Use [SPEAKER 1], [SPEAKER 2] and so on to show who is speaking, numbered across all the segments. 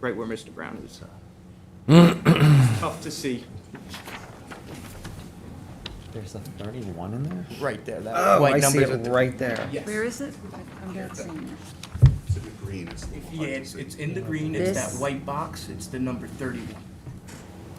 [SPEAKER 1] right where Mr. Brown is. Tough to see.
[SPEAKER 2] There's a thirty-one in there?
[SPEAKER 3] Right there, that
[SPEAKER 4] Oh, I
[SPEAKER 3] white
[SPEAKER 4] see
[SPEAKER 3] number.
[SPEAKER 4] it right there.
[SPEAKER 1] Yes.
[SPEAKER 5] Where is it? I- I'm not seeing it.
[SPEAKER 6] It's in the green, it's a little hard
[SPEAKER 1] Yeah,
[SPEAKER 6] to
[SPEAKER 1] it's,
[SPEAKER 6] see.
[SPEAKER 1] it's in the green, it's that
[SPEAKER 5] This-
[SPEAKER 1] white box, it's the number thirty-one.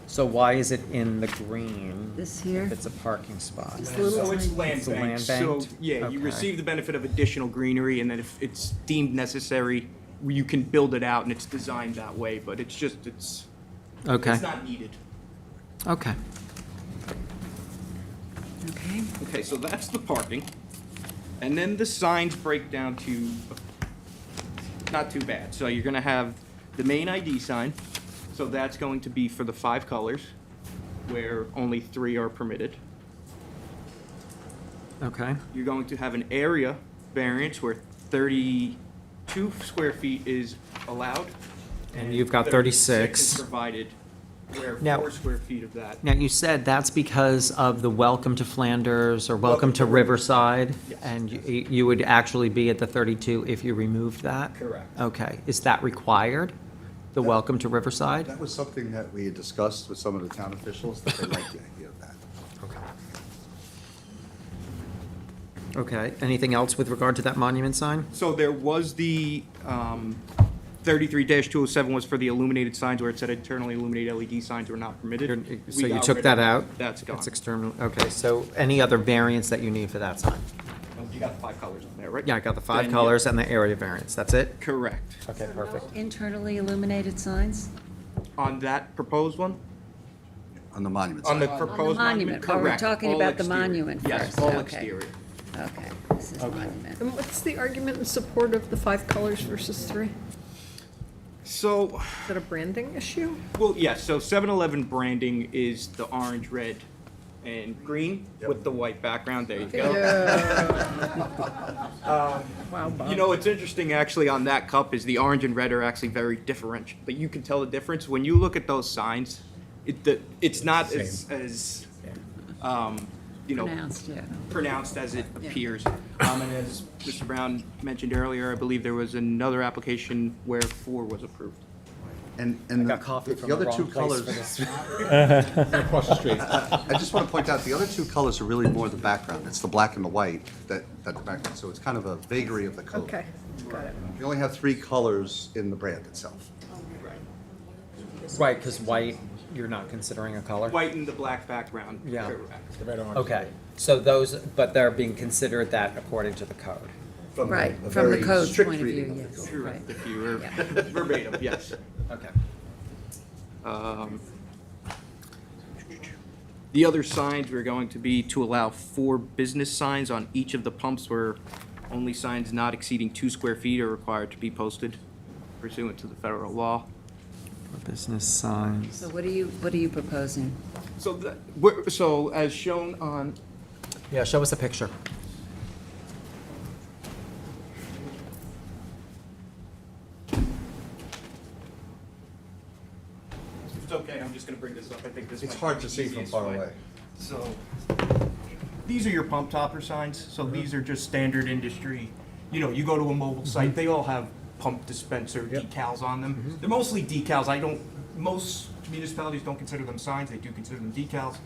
[SPEAKER 2] So why is it in the green?
[SPEAKER 5] This here?
[SPEAKER 2] If it's a parking spot.
[SPEAKER 5] This little
[SPEAKER 1] So it's
[SPEAKER 5] tiny-
[SPEAKER 1] land
[SPEAKER 2] It's a
[SPEAKER 1] bank,
[SPEAKER 2] land
[SPEAKER 1] so,
[SPEAKER 2] banked?
[SPEAKER 1] yeah, you
[SPEAKER 2] Okay.
[SPEAKER 1] receive the benefit of additional greenery, and then if it's deemed necessary, you can build it out, and it's designed that way, but it's just, it's,
[SPEAKER 2] Okay,
[SPEAKER 1] it's not needed.
[SPEAKER 2] okay.
[SPEAKER 5] Okay,
[SPEAKER 1] Okay, so that's the parking. And then the signs break down to, not too bad. So you're gonna have the main ID sign, so that's going to be for the five colors, where only three are permitted.
[SPEAKER 2] Okay,
[SPEAKER 1] You're going to have an area variance where thirty-two square feet is allowed.
[SPEAKER 2] and you've got
[SPEAKER 1] 36 is
[SPEAKER 2] thirty-six.
[SPEAKER 1] Provided, where
[SPEAKER 2] Now-
[SPEAKER 1] four square feet of that.
[SPEAKER 2] Now, you said that's because of the Welcome to Flanders or Welcome to Riverside?
[SPEAKER 1] Yes.
[SPEAKER 2] And you, you would actually be at the thirty-two if you removed that?
[SPEAKER 1] Correct.
[SPEAKER 2] Okay, is that required? The Welcome to Riverside?
[SPEAKER 6] That was something that we had discussed with some of the town officials, that they liked the idea of that.
[SPEAKER 2] Okay, anything else with regard to that monument sign?
[SPEAKER 1] So there was the um, 33-207 was for the illuminated signs where it said internally illuminated LED signs were not permitted. We
[SPEAKER 2] So you
[SPEAKER 1] got
[SPEAKER 2] took
[SPEAKER 1] rid of
[SPEAKER 2] that out?
[SPEAKER 1] That's gone.
[SPEAKER 2] That's external, okay, so any other variants that you need for that sign?
[SPEAKER 1] Oh, You got the five colors on there, right?
[SPEAKER 2] Yeah, I got the five
[SPEAKER 1] Then, yeah.
[SPEAKER 2] colors and the area variance, that's it?
[SPEAKER 1] Correct.
[SPEAKER 2] Okay, perfect.
[SPEAKER 5] internally illuminated signs?
[SPEAKER 1] On that proposed one?
[SPEAKER 6] On the monument
[SPEAKER 1] On the
[SPEAKER 6] side,
[SPEAKER 1] proposed monument?
[SPEAKER 5] monument. Oh, we're
[SPEAKER 1] Correct.
[SPEAKER 5] talking
[SPEAKER 1] All
[SPEAKER 5] about the
[SPEAKER 1] exterior.
[SPEAKER 5] monument
[SPEAKER 1] Yes,
[SPEAKER 5] first.
[SPEAKER 1] all
[SPEAKER 5] Okay.
[SPEAKER 1] exterior.
[SPEAKER 5] Okay, this is monument.
[SPEAKER 7] And what's the argument in support of the five colors versus three?
[SPEAKER 1] So,
[SPEAKER 7] Is that a branding issue?
[SPEAKER 1] well, yeah, so 7-Eleven branding is the orange, red, and green with the white background. There you go.
[SPEAKER 7] Wow,
[SPEAKER 1] You
[SPEAKER 7] Bob.
[SPEAKER 1] know, it's interesting actually on that cup is the orange and red are actually very different, but you can tell the difference when you look at those signs. It, the, it's not as, as, um, you know,
[SPEAKER 5] Pronounced, yeah.
[SPEAKER 1] pronounced as it appears. Um, and as Mr. Brown mentioned earlier, I believe there was another application where four was approved.
[SPEAKER 6] and, and
[SPEAKER 2] got coffee
[SPEAKER 6] the
[SPEAKER 2] from
[SPEAKER 6] the
[SPEAKER 2] the
[SPEAKER 6] other two
[SPEAKER 2] wrong place
[SPEAKER 6] colors.
[SPEAKER 2] for this.
[SPEAKER 8] Across the street.
[SPEAKER 6] I just want to point out, the other two colors are really more the background. It's the black and the white that, that the background, so it's kind of a vagary of the color.
[SPEAKER 7] Okay, got it.
[SPEAKER 6] We only have three colors in the brand itself.
[SPEAKER 2] Right, because white, you're not considering a color?
[SPEAKER 1] White and the black background.
[SPEAKER 2] Yeah.
[SPEAKER 1] Correct.
[SPEAKER 8] Right on.
[SPEAKER 2] Okay, so those, but they're being considered that according to the code?
[SPEAKER 6] From
[SPEAKER 5] Right,
[SPEAKER 6] a
[SPEAKER 5] from the
[SPEAKER 6] very
[SPEAKER 5] code's
[SPEAKER 6] strict
[SPEAKER 5] point of
[SPEAKER 6] reading
[SPEAKER 5] view,
[SPEAKER 6] the
[SPEAKER 5] yes,
[SPEAKER 6] code.
[SPEAKER 5] right.
[SPEAKER 1] Correct, if you were
[SPEAKER 5] Yeah.
[SPEAKER 1] verbatim, yes.
[SPEAKER 2] Okay.
[SPEAKER 1] Um, The other signs were going to be to allow four business signs on each of the pumps where only signs not exceeding two square feet are required to be posted pursuant to the federal law.
[SPEAKER 2] Business signs.
[SPEAKER 5] So what are you, what are you proposing?
[SPEAKER 1] So the, we're- so as shown on,
[SPEAKER 2] Yeah, show us a picture.
[SPEAKER 1] it's okay, I'm just gonna bring this up, I think this
[SPEAKER 6] It's
[SPEAKER 1] might
[SPEAKER 6] hard
[SPEAKER 1] be
[SPEAKER 6] to
[SPEAKER 1] the
[SPEAKER 6] see from
[SPEAKER 1] easiest
[SPEAKER 6] far
[SPEAKER 1] way.
[SPEAKER 6] away.
[SPEAKER 1] So, these are your pump topper signs, so these are just standard industry. You know, you go to a mobile site, they all have pump dispenser decals on them. They're mostly decals, I don't, most municipalities don't consider them signs, they do consider them decals.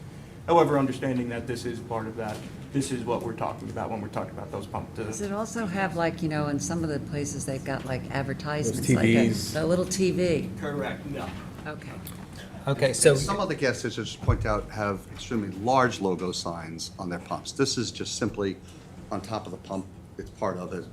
[SPEAKER 1] However, understanding that this is part of that, this is what we're talking about when we're talking about those pump. to-
[SPEAKER 5] Does it also have like, you know, in some of the places they've got like advertisements,
[SPEAKER 8] Those
[SPEAKER 5] like a,
[SPEAKER 8] TVs.
[SPEAKER 5] a little TV?
[SPEAKER 1] Correct, no.
[SPEAKER 5] Okay.
[SPEAKER 2] Okay, so,
[SPEAKER 6] Some of the gas stations, just point out, have extremely large logo signs on their pumps. This is just simply on top of the pump. It's part of it.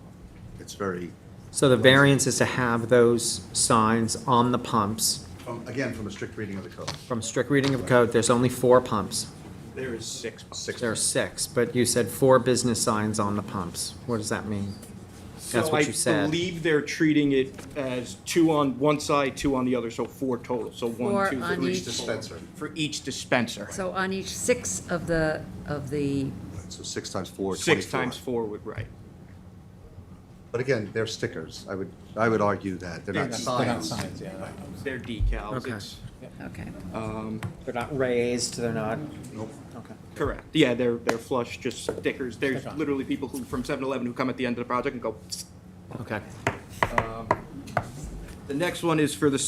[SPEAKER 6] It's very,
[SPEAKER 2] so the variance is to have those signs on the pumps.
[SPEAKER 6] from- again, from a strict reading of the code.
[SPEAKER 2] From strict reading of code, there's only four pumps.
[SPEAKER 1] There is six pumps.
[SPEAKER 6] Six.
[SPEAKER 2] There are six, but you said four business signs on the pumps. What does that mean? That's what you
[SPEAKER 1] So I
[SPEAKER 2] said.
[SPEAKER 1] believe they're treating it as two on one side, two on the other, so four total, so one,
[SPEAKER 5] Four
[SPEAKER 1] two,
[SPEAKER 5] on
[SPEAKER 1] three.
[SPEAKER 5] each.
[SPEAKER 6] Dispenser.
[SPEAKER 1] For each dispenser.
[SPEAKER 5] So on each six of the, of the,
[SPEAKER 6] So six times four,
[SPEAKER 1] Six
[SPEAKER 6] 24.
[SPEAKER 1] times four would, right.
[SPEAKER 6] But again, they're stickers. I would, I would argue that. They're not
[SPEAKER 8] They're not
[SPEAKER 6] signs.
[SPEAKER 8] signs, yeah.
[SPEAKER 1] They're decals.
[SPEAKER 2] Okay.
[SPEAKER 1] It's-
[SPEAKER 5] okay.
[SPEAKER 2] They're not raised, they're not,
[SPEAKER 6] Nope.
[SPEAKER 2] okay.
[SPEAKER 1] Correct. Yeah, they're, they're flush, just stickers. There's
[SPEAKER 8] Stick on.
[SPEAKER 1] literally people who, from 7-Eleven who come at the end of the project and go, "Psst."
[SPEAKER 2] Okay.
[SPEAKER 1] The next one is for the